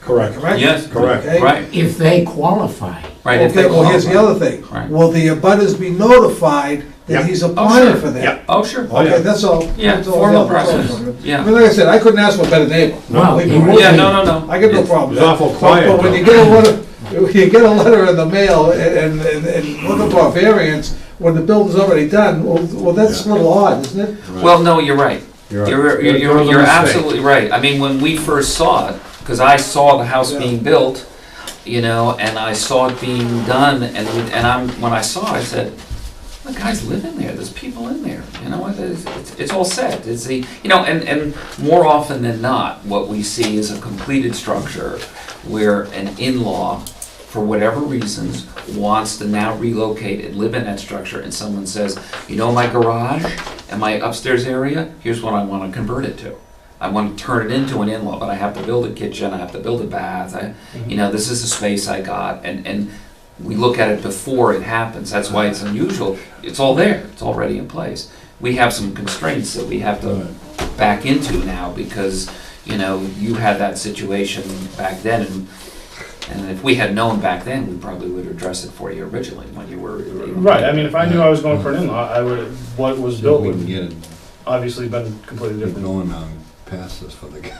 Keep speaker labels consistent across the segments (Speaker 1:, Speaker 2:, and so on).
Speaker 1: Correct.
Speaker 2: correct?
Speaker 3: Yes.
Speaker 1: Correct.
Speaker 2: Okay.
Speaker 3: Right,
Speaker 4: if they qualify.
Speaker 3: right. if
Speaker 2: Okay,
Speaker 3: they
Speaker 2: well, here's the
Speaker 3: qualify.
Speaker 2: other thing.
Speaker 3: Right.
Speaker 2: Will the abutters be notified
Speaker 1: Yep.
Speaker 2: that he's
Speaker 3: Oh,
Speaker 2: applying
Speaker 3: sure.
Speaker 2: for that?
Speaker 1: Yep.
Speaker 3: Oh, sure.
Speaker 1: Oh, yeah.
Speaker 2: Okay, that's all.
Speaker 3: Yeah,
Speaker 2: That's all I
Speaker 3: formal
Speaker 2: have. That's all.
Speaker 3: process. Yeah.
Speaker 2: I mean, like I said, I couldn't ask for a better neighbor.
Speaker 4: Well,
Speaker 2: Believe me,
Speaker 4: you
Speaker 2: right?
Speaker 4: would.
Speaker 3: Yeah, no, no, no.
Speaker 2: I got no problem. with
Speaker 1: It's
Speaker 2: that.
Speaker 1: awful
Speaker 2: But-
Speaker 1: quiet,
Speaker 2: But when
Speaker 1: though.
Speaker 2: you get a letter, you get a letter in the mail and, and, and looking for a variance, when the building's already done, well, well, that's a little odd, isn't it?
Speaker 3: Well, no, you're right.
Speaker 1: You're right.
Speaker 3: You're,
Speaker 1: There-
Speaker 3: you're,
Speaker 1: there
Speaker 3: you're
Speaker 1: was a
Speaker 3: you're
Speaker 1: mistake.
Speaker 3: absolutely right. I mean, when we first saw it, because I saw the house
Speaker 2: Yeah.
Speaker 3: being built, you know, and I saw it being done, and, we- and I'm, when I saw it, I said, the guys live in there, there's people in there, you know, it- it's, it's- it's all set, it's the, you know, and, and more often than not, what we see is a completed structure where an in-law, for whatever reasons, wants to now relocate and live in that structure, and someone says, you know, my garage and my upstairs area, here's what I wanna convert it to. I want to turn it into an in-law, but I have to build a kitchen, I have to build a bath, I, you know, this is the space I got, and, and we look at it before it happens, that's why it's unusual, it's all there, it's already in place. We have some constraints that we have to back into now, because, you know, you had that situation back then, and, and if we had known back then, we probably would have addressed it for you originally, when you were.
Speaker 5: Right, I mean, if I knew I was going for an in-law, I would, what was built
Speaker 6: Wouldn't
Speaker 5: would
Speaker 6: get it
Speaker 5: obviously been completely
Speaker 6: They're
Speaker 5: different.
Speaker 6: going um, past this for the guy.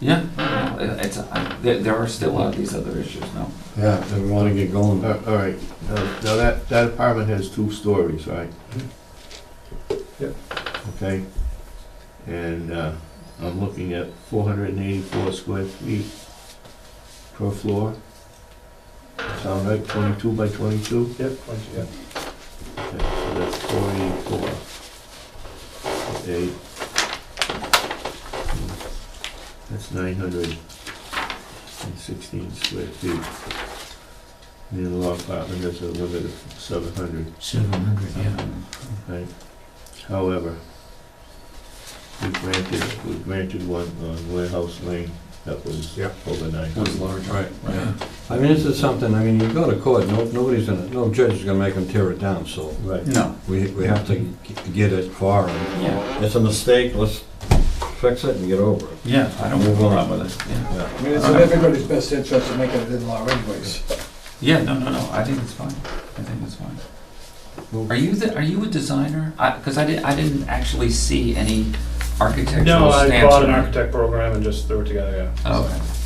Speaker 3: Yeah, yeah, it's, uh, there, there are still a lot of these other issues, no?
Speaker 6: Yeah, they want to get going.
Speaker 7: Uh, All right, now now that, that apartment has two stories, right?
Speaker 5: Yep.
Speaker 7: Okay, and uh, I'm looking at four hundred and eighty-four square feet per floor. Sound right, twenty-two by twenty-two?
Speaker 5: Yep, once you- yeah.
Speaker 7: Okay, so that's four eighty-four. Eight. That's nine hundred and sixteen square feet. The in-law apartment has a limit of seven hundred,
Speaker 4: Seven hundred, yeah.
Speaker 7: right? However, we granted, we granted one on Warehouse Lane that was
Speaker 1: Yep.
Speaker 7: over nine
Speaker 6: That was
Speaker 7: hundred.
Speaker 6: large.
Speaker 1: Right.
Speaker 6: Yeah. I mean, this is something, I mean, you go to court, no, nobody's gonna, no judge is gonna make them tear it down, so
Speaker 7: Right.
Speaker 3: No.
Speaker 6: we, we have to g- get it far. and
Speaker 3: Yeah,
Speaker 6: It's a mistake, let's fix it and get over it.
Speaker 3: yeah, I don't have a problem with it, yeah.
Speaker 2: I mean, it's in
Speaker 1: Uh-huh.
Speaker 2: everybody's best interest to make it an in-law anyways.
Speaker 3: Yeah, no, no, no, I think it's fine, I think it's fine. Are you the, are you a designer? I, cause I didn't, I didn't actually see any architectural stamps.
Speaker 5: No, I bought an
Speaker 3: on it.
Speaker 5: architect program and just threw it together, yeah.
Speaker 3: Oh,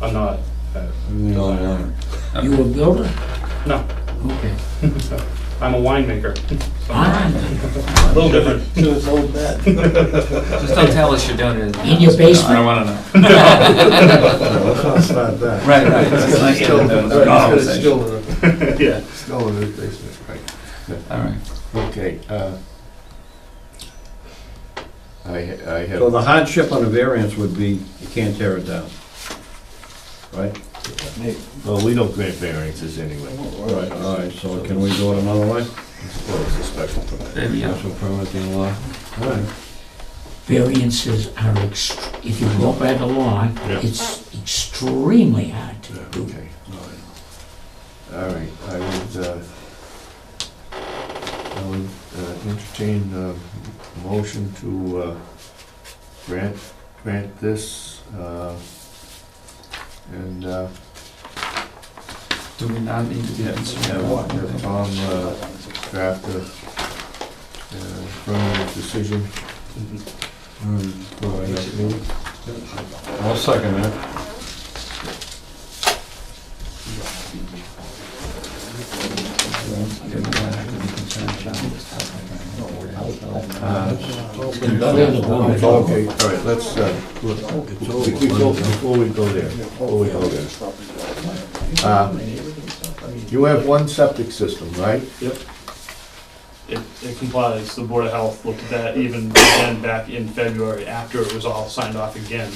Speaker 5: I'm not, uh,
Speaker 6: Everything online.
Speaker 3: okay.
Speaker 4: You a builder?
Speaker 5: no,
Speaker 4: Okay.
Speaker 5: I'm a winemaker,
Speaker 4: Fine.
Speaker 5: a little different.
Speaker 2: To his old man.
Speaker 3: Just don't tell us you're doing it. the
Speaker 4: In your
Speaker 3: house. No, I
Speaker 4: basement?
Speaker 3: don't wanna know.
Speaker 6: No, Let's not start that.
Speaker 3: Right, right. It's like in the- the conversation.
Speaker 5: Yeah.
Speaker 7: Still in the basement, right.
Speaker 3: All right.
Speaker 7: Okay, uh, I, I have.
Speaker 6: So the hardship on a variance would be, you can't tear it down. Right?
Speaker 7: Well, we don't grant variances anyway.
Speaker 6: All right, all right, so can we do it another way?
Speaker 7: Well, it's a special permit.
Speaker 3: Maybe, yeah.
Speaker 6: Special permit in law. All right.
Speaker 4: Variances are ext, if you go by the law,
Speaker 7: Yeah.
Speaker 4: it's extremely hard to do.
Speaker 7: Okay, all right. All right, I would, uh, I would uh, entertain a motion to uh, grant, grant this, uh, and uh,
Speaker 3: Do we not need to be concerned
Speaker 7: have
Speaker 3: about
Speaker 7: have
Speaker 3: anything?
Speaker 7: Tom uh, draft a uh, permanent decision
Speaker 6: Mm-hmm. All right.
Speaker 7: for our next meeting.
Speaker 6: I'll second that.
Speaker 4: It's
Speaker 7: Okay, all right, let's, uh, look, before before we go there, before we go there. Uh, You have one septic system, right?
Speaker 8: it, it complies, the Board of Health looked at that even again back in February after it was all signed off again.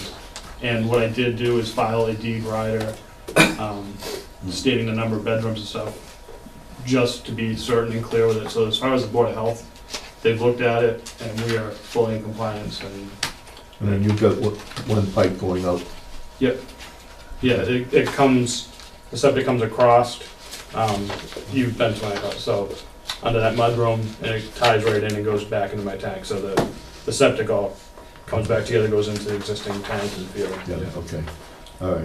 Speaker 8: And what I did do is file a deed rider, um, stating the number of bedrooms and stuff, just to be certain and clear with it, so as far as the Board of Health, they've looked at it, and we are fully in compliance, and,
Speaker 7: And then you've got one- one pipe going out.
Speaker 8: yeah, it, it comes, the septic comes across, um, you've been to my house, so, under that mudroom, and it ties right in and goes back into my tank, so the, the septic all comes back together, goes into the existing tank and field.
Speaker 7: Yeah, okay, all right.